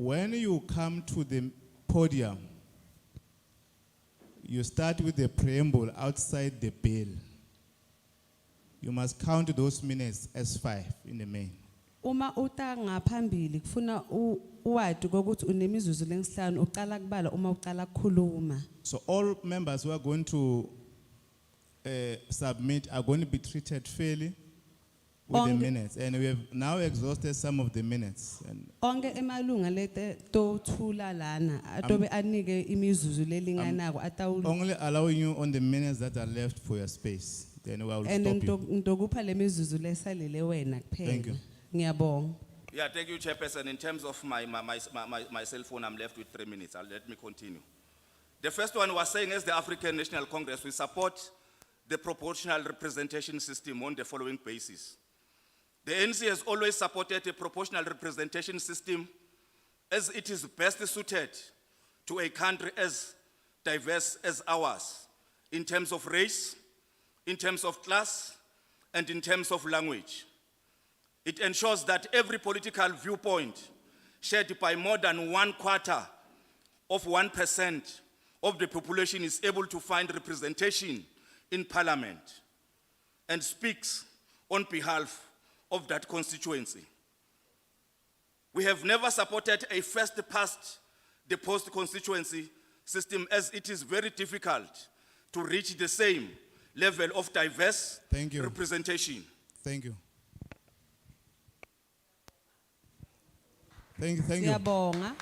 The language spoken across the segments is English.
When you come to the podium, you start with the preamble outside the bill. You must count those minutes as five in the main. Uma uta ngaphambili kufuna u- uwadi kokuthi unemizuzu lenhlanu uqala kubala uma uqala kukhuluma. So all members who are going to uh, submit are going to be treated fairly with the On the- minutes. And we have now exhausted some of the minutes. And Onke emalunga lete tothula lana atobe anike imizuzu lelinganako atawul. only allowing you on the minutes that are left for your space. Then we will And stop you. ndokupha lemizuzu lesalile wena Thank kuphela. you. Ngiyabonga. Yeah, thank you, Chairperson. In terms of my, my, my, my, my cell phone, I'm left with three minutes. I'll, let me continue. The first one was saying, as the African National Congress, we support the proportional representation system on the following basis. The NC has always supported a proportional representation system as it is best suited to a country as diverse as ours in terms of race, in terms of class, and in terms of language. It ensures that every political viewpoint shared by more than one quarter of 1% of the population is able to find representation in parliament and speaks on behalf of that constituency. We have never supported a first past the post constituency system as it is very difficult to reach the same level of diverse Thank you. representation. Thank you. Thank you, thank you. Ngiyabonga.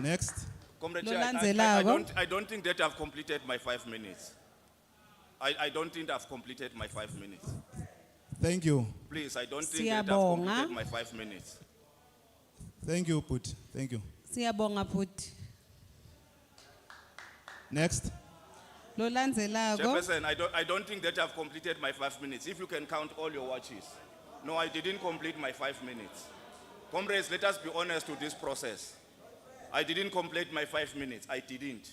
Next. Comrade Chair, I- I, I Lolandzelako. don't, I don't think that I've completed my five minutes. I, I don't think I've completed my five minutes. Thank you. Please, I don't think that I've Siyabonga. completed my five minutes. Thank you, Put. Thank you. Siyabonga futhi. Next. Lolandzelako. Chairperson, I don't, I don't think that I've completed my five minutes, if you can count all your watches. No, I didn't complete my five minutes. Comrades, let us be honest to this process. I didn't complete my five minutes, I didn't.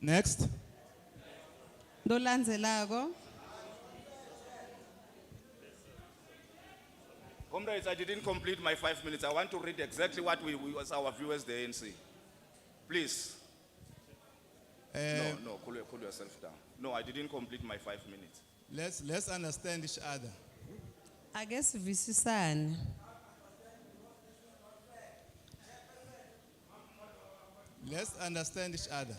Next. Lolandzelako. Comrades, I didn't complete my five minutes. I want to read exactly what we, we, as our viewers, the ANC. Please. No, Eh, no, cool, cool yourself down. No, I didn't complete my five minutes. Let's, let's understand each other. Ake sivisisane. Let's understand each other.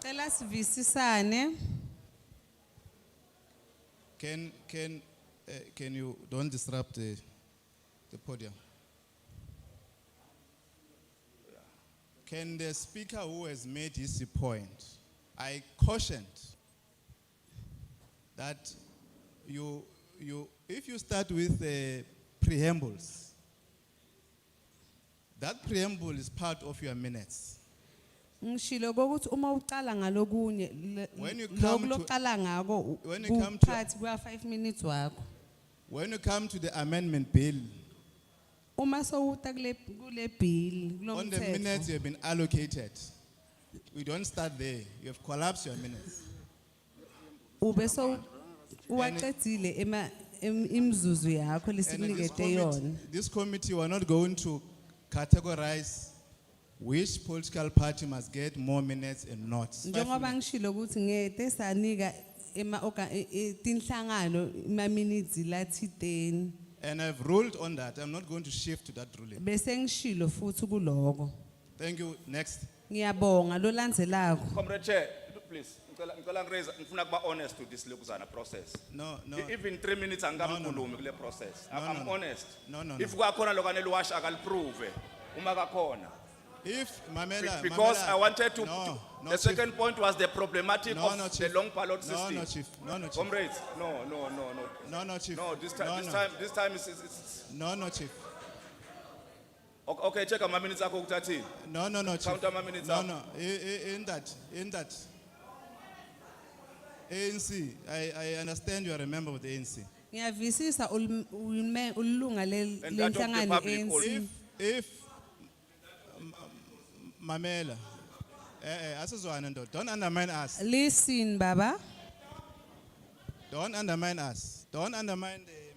Cela sivisisane. Can, can, uh, can you, don't disrupt the, the podium. Can the speaker who has made his point, I cautioned that you, you, if you start with the preambles, that preamble is part of your minutes. Ngishilo ukuthi uma uqala ngalokunye le- When you come loku to- loqala ngako u- When you come to- uphathi kuya 5 minutes wakho. When you come to the amendment bill, Uma sowuta kule kule bill on the minutes kulomthetho. you have been allocated, we don't start there. You have collapsed your minutes. Ube so uwaqedile ema im- imzuzu And yakho in this lesinikete committee, yona. this committee, we're not going to categorize which political party must get more minutes and not. Five Njengoba minutes. ngishilo ukuthi ngete sanika ema orga- e- e- tinhlangano ima minutes lathi 10 And I've ruled on that. I'm not going to shift to that ruling. bese ngishilo futhi kuloko. Thank you. Next. Ngiyabonga lolandzelako. Comrade Chair, please, ngicela ngicela ngiraise ngifuna kuba honest to this Lukuzana process. No, no. E- Even three minutes angamkhulumi kule process. I- I'm honest. No, no, no. If kwakhona lokwaneliwash akaliprove uma kakhona. If Mamela. Because Mamela- I wanted to, No, no. the Chief. second point was the problematic No, of no, the Chief. long ballot No, system. no, chief. No, no, chief. Comrades, no, no, no, no. No, no, chief. No, this time, No, this no. time, this time is, is, is, No, no, chief. okay, okay, check ama minutes akho kuthathini. No, no, no, chief. Count ama minutes No, up. no, I- I- in that, in that. ANC, I, I understand you are a member of the ANC. Ngiyavisisa ulme- ulme- ulunga le- And that of the lenhlangano public If, ANC. if, m- m- Mamela, eh, eh, asizwane ndoda, don't undermine us, Listen baba, don't undermine us, don't undermine the